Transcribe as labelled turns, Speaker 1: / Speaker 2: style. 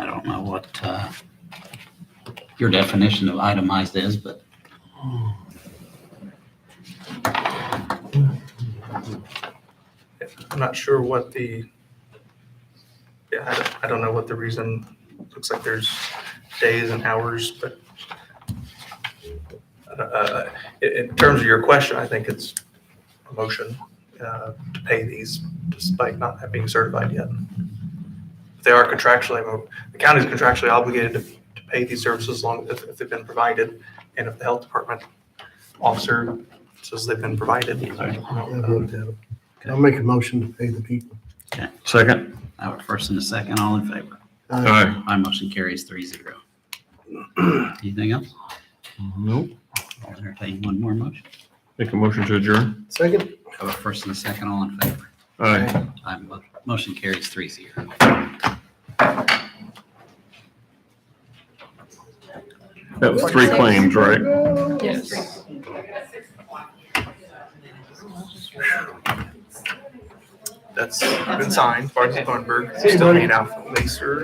Speaker 1: don't know what, uh, your definition of itemized is, but
Speaker 2: I'm not sure what the, yeah, I don't, I don't know what the reason, looks like there's days and hours, but uh, in, in terms of your question, I think it's a motion uh, to pay these despite not being certified yet. They are contractually, the county's contractually obligated to, to pay these services as long, if, if they've been provided, and if the health department officer says they've been provided.
Speaker 3: I wrote that. I'll make a motion to pay the people.
Speaker 4: Second.
Speaker 1: I would first and a second, all in favor.
Speaker 3: Uh,
Speaker 1: My motion carries three zero. Anything else?
Speaker 4: Nope.
Speaker 1: I'll entertain one more motion.
Speaker 4: Make a motion to adjourn.
Speaker 3: Second?
Speaker 1: I have a first and a second, all in favor.
Speaker 4: Aye.
Speaker 1: My mo- motion carries three zero.
Speaker 4: That was three claims, right?
Speaker 5: Yes.
Speaker 2: That's been signed, Barton Thornburg,
Speaker 3: See you, buddy.
Speaker 2: still made out, Lacer,